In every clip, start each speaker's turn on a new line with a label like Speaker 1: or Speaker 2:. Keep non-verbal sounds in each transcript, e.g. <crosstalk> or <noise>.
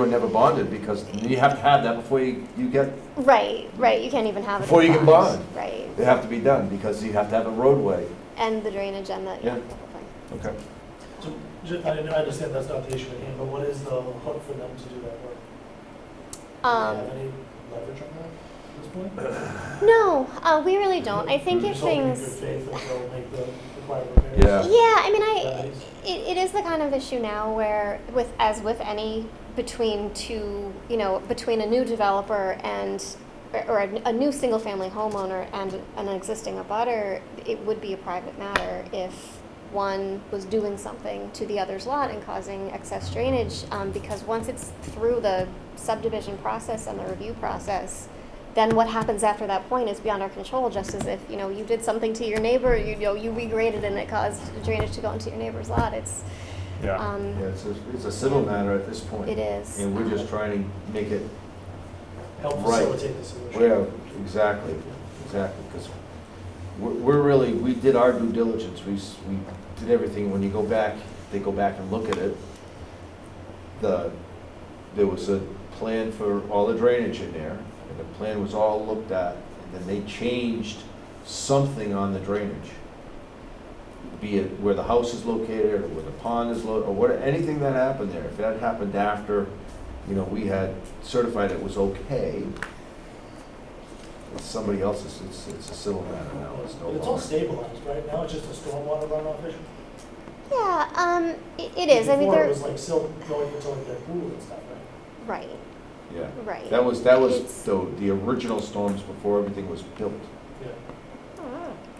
Speaker 1: never bonded because you have to have that before you, you get,
Speaker 2: Right, right, you can't even have it.
Speaker 1: Before
Speaker 2: in
Speaker 1: you can
Speaker 2: bonds,
Speaker 1: bond.
Speaker 2: Right,
Speaker 1: they have to be done because you have to have a roadway.
Speaker 2: and the drainage and the,
Speaker 1: Yeah.
Speaker 2: yeah, the whole thing.
Speaker 1: Okay.
Speaker 3: So, ju- I I understand that's not the issue at hand, but what is the hook for them to do that work? Do they have
Speaker 2: Um,
Speaker 3: any leverage on that at this point?
Speaker 2: no, uh, we really don't. I think if
Speaker 3: Just hoping in
Speaker 2: things,
Speaker 3: good faith that they'll make the required repairs.
Speaker 1: Yeah.
Speaker 2: yeah, I mean, I,
Speaker 3: Nice.
Speaker 2: it, it is the kind of issue now where with, as with any, between two, you know, between a new developer and, or- or a, a new single-family homeowner and an existing abutter, it would be a private matter if one was doing something to the other's lot and causing excess drainage, um, because once it's through the subdivision process and the review process, then what happens after that point is beyond our control, just as if, you know, you did something to your neighbor, you know, you regraded and it caused drainage to go into your neighbor's lot, it's,
Speaker 4: Yeah.
Speaker 2: um,
Speaker 1: Yeah, it's a, it's a civil matter at this point.
Speaker 2: it is.
Speaker 1: And we're just trying to make it,
Speaker 3: Help
Speaker 1: Right.
Speaker 3: facilitate the solution.
Speaker 1: well, exactly, exactly, because we're, we're really, we did our due diligence, we, s- we did everything. When you go back, they go back and look at it. The, there was a plan for all the drainage in there, and the plan was all looked at, and then they changed something on the drainage. Be it where the house is located, or where the pond is lo, or what, anything that happened there, if that happened after, you know, we had certified it was okay, it's somebody else's, it's, it's a civil matter now, it's no
Speaker 3: But it's all
Speaker 1: longer.
Speaker 3: stabilized, right? Now it's just a stormwater runoff issue?
Speaker 2: Yeah, um, i it is, I mean,
Speaker 3: Before
Speaker 2: there,
Speaker 3: it was like silt going into like their pool and stuff, right?
Speaker 2: right,
Speaker 1: Yeah.
Speaker 2: right.
Speaker 1: That was, that was
Speaker 2: It's-
Speaker 1: the, the original storms before everything was built.
Speaker 3: Yeah,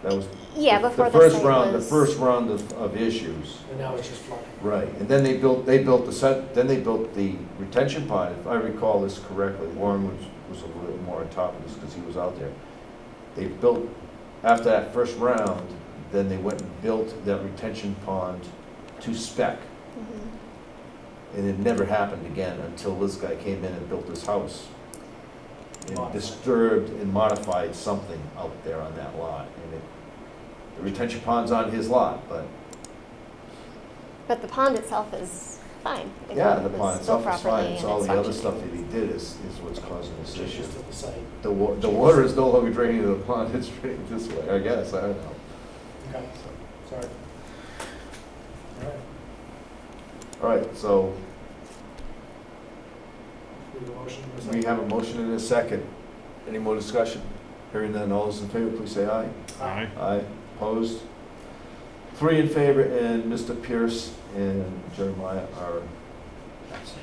Speaker 1: That was.
Speaker 2: Mm-hmm. Yeah,
Speaker 1: the-
Speaker 2: before the
Speaker 1: first
Speaker 2: site
Speaker 1: round. The
Speaker 2: was-
Speaker 1: first round of, of issues,
Speaker 3: and now it's just flooding.
Speaker 1: right. And then they built, they built the set, then they built the retention pond, if I recall this correctly. Warren was, was a little more on top of this because he was out there. They built, after that first round, then they went and built that retention pond to spec.
Speaker 2: Mhm.
Speaker 1: And it never happened again until this guy came in and built his house. And
Speaker 3: Modified.
Speaker 1: disturbed and modified something out there on that lot. And it, the retention pond's on his lot, but
Speaker 2: But the pond itself is fine. It
Speaker 1: yeah, the pond
Speaker 2: was built
Speaker 1: itself is
Speaker 2: properly
Speaker 1: fine. It's
Speaker 2: and
Speaker 1: all the other
Speaker 2: functioning.
Speaker 1: stuff that he did is, is what's causing this issue.
Speaker 3: Changes to the site.
Speaker 1: The wa, the water is no longer draining to the pond, <laughs> it's draining this way, I guess, I don't know.
Speaker 3: Okay, sorry. All right,
Speaker 1: All right, so
Speaker 3: we have a motion. and a
Speaker 1: we
Speaker 3: second.
Speaker 1: have a motion and a second. Any more discussion? Hearing none, all those in favor, please say aye.
Speaker 4: Aye.
Speaker 1: Aye, opposed? Three in favor, and Mr. Pierce and Jeremiah are absent.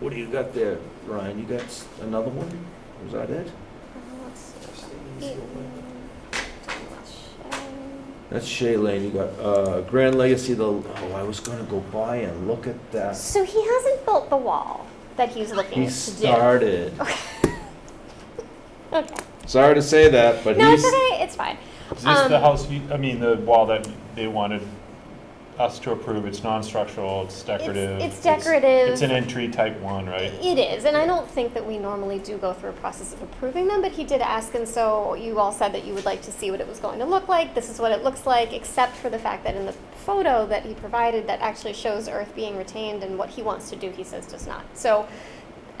Speaker 1: What do you got there, Ryan? You got s- another one? Was that it?
Speaker 2: Uh, let's see.
Speaker 3: Stay easy, open.
Speaker 1: That's Shay Lane. You got uh, Grand Legacy, the, oh, I was gonna go by and look at that.
Speaker 2: So he hasn't built the wall that he's looking
Speaker 1: He
Speaker 2: to do.
Speaker 1: started.
Speaker 2: Okay.
Speaker 1: Sorry to say that, but
Speaker 2: No, it's
Speaker 1: he's,
Speaker 2: okay. It's fine.
Speaker 4: Is this the
Speaker 2: Um,
Speaker 4: house, you- I mean, the wall that they wanted us to approve? It's non-structural, it's decorative.
Speaker 2: It's, it's decorative.
Speaker 4: It's an entry type one, right?
Speaker 2: It is, and I don't think that we normally do go through a process of approving them, but he did ask, and so you all said that you would like to see what it was going to look like. This is what it looks like, except for the fact that in the photo that he provided that actually shows earth being retained and what he wants to do, he says does not. So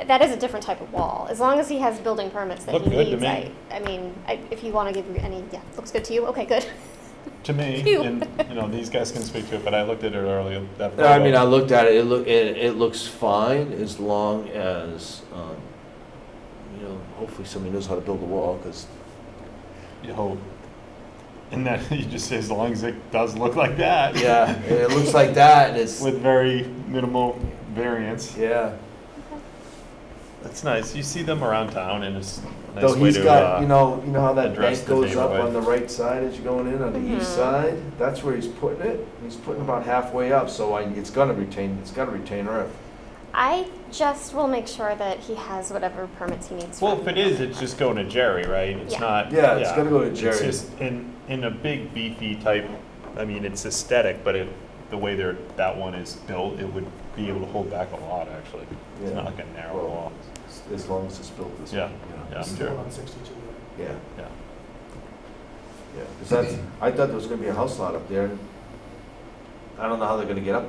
Speaker 2: that is a different type of wall. As long as he has building permits that
Speaker 4: Looked
Speaker 2: he
Speaker 4: good to
Speaker 2: needs,
Speaker 4: me.
Speaker 2: I, I mean, I, if you want to give me any, yeah, looks good to you. Okay, good.
Speaker 4: To me,
Speaker 2: Phew.
Speaker 4: and, you know, these guys can speak to it, but I looked at it earlier, that
Speaker 1: I mean, I
Speaker 4: photo.
Speaker 1: looked at it, it look, it, it looks fine as long as, um, you know, hopefully somebody knows how to build a wall,
Speaker 4: <laughs>
Speaker 1: because
Speaker 4: You hope. And that, <laughs> you just say, as long as it does look like that.
Speaker 1: Yeah, and it looks like that, and it's
Speaker 4: With very minimal variance.
Speaker 1: yeah.
Speaker 4: That's nice. You see them around town and it's a nice
Speaker 1: Though
Speaker 4: way
Speaker 1: he's
Speaker 4: to,
Speaker 1: got,
Speaker 4: uh,
Speaker 1: you know, you know how that
Speaker 4: address
Speaker 1: bank
Speaker 4: the
Speaker 1: goes up
Speaker 4: neighborhood.
Speaker 1: on the right side as you're going in on the east
Speaker 2: Mhm.
Speaker 1: side. That's where he's putting it. He's putting about halfway up, so I, it's gonna retain. It's gotta retain earth.
Speaker 2: I just will make sure that he has whatever permits he needs.
Speaker 4: well,
Speaker 2: from
Speaker 4: if it is, it's just going to Jerry, right? It's
Speaker 2: Yeah.
Speaker 4: not.
Speaker 1: Yeah, it's gonna go to Jerry.
Speaker 4: It's just in, in a big beefy type, I mean, it's aesthetic, but it, the way they're, that one is built, it would be able to hold back a lot, actually. It's
Speaker 1: Yeah.
Speaker 4: not like a narrow
Speaker 1: Well,
Speaker 4: wall.
Speaker 1: as long as it's built this
Speaker 4: Yeah,
Speaker 1: way. you know.
Speaker 4: yeah, I'm
Speaker 3: Still
Speaker 4: sure,
Speaker 3: on sixty-two, right?
Speaker 1: Yeah.
Speaker 4: yeah.
Speaker 1: Yeah. 'Cause that's- I thought there was gonna be a house lot up there. I don't know how they're gonna get up there.